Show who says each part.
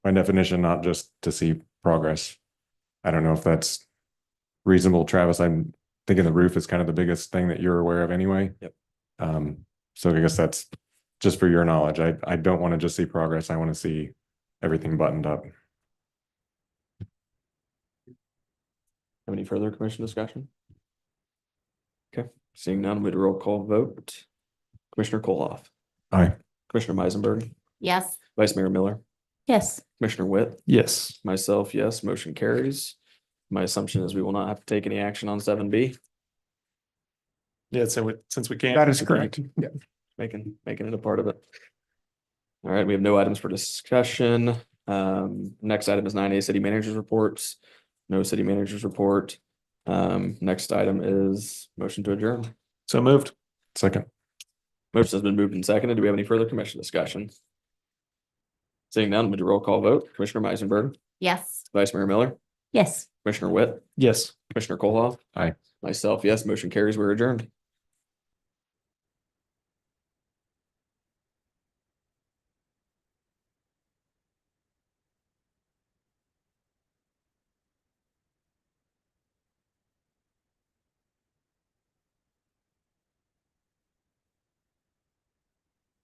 Speaker 1: by definition, not just to see progress. I don't know if that's reasonable, Travis. I'm thinking the roof is kind of the biggest thing that you're aware of anyway.
Speaker 2: Yep.
Speaker 1: Um, so I guess that's just for your knowledge. I, I don't want to just see progress. I want to see everything buttoned up.
Speaker 2: Have any further commission discussion? Okay, seeing none, we'd roll call vote. Commissioner Koloff.
Speaker 1: Aye.
Speaker 2: Commissioner Meisenberg,
Speaker 3: Yes.
Speaker 2: Vice Mayor Miller,
Speaker 3: Yes.
Speaker 2: Commissioner Witt,
Speaker 4: Yes.
Speaker 2: myself, yes, motion carries. My assumption is we will not have to take any action on seven B,
Speaker 4: Yeah, so we- since we can't.
Speaker 5: That is correct. Yeah.
Speaker 2: making, making it a part of it. All right, we have no items for discussion. Um, next item is nine A, city managers reports. No city managers report. Um, next item is motion to adjourn.
Speaker 4: So moved.
Speaker 1: Second,
Speaker 2: Motion has been moved and seconded. Do we have any further commission discussion? Seeing none, we do roll call vote. Commissioner Meisenberg,
Speaker 3: Yes.
Speaker 2: Vice Mayor Miller,
Speaker 3: Yes.
Speaker 2: Commissioner Witt,
Speaker 4: Yes.
Speaker 2: Commissioner Koloff.
Speaker 1: Aye.
Speaker 2: Myself, yes, motion carries. We're adjourned.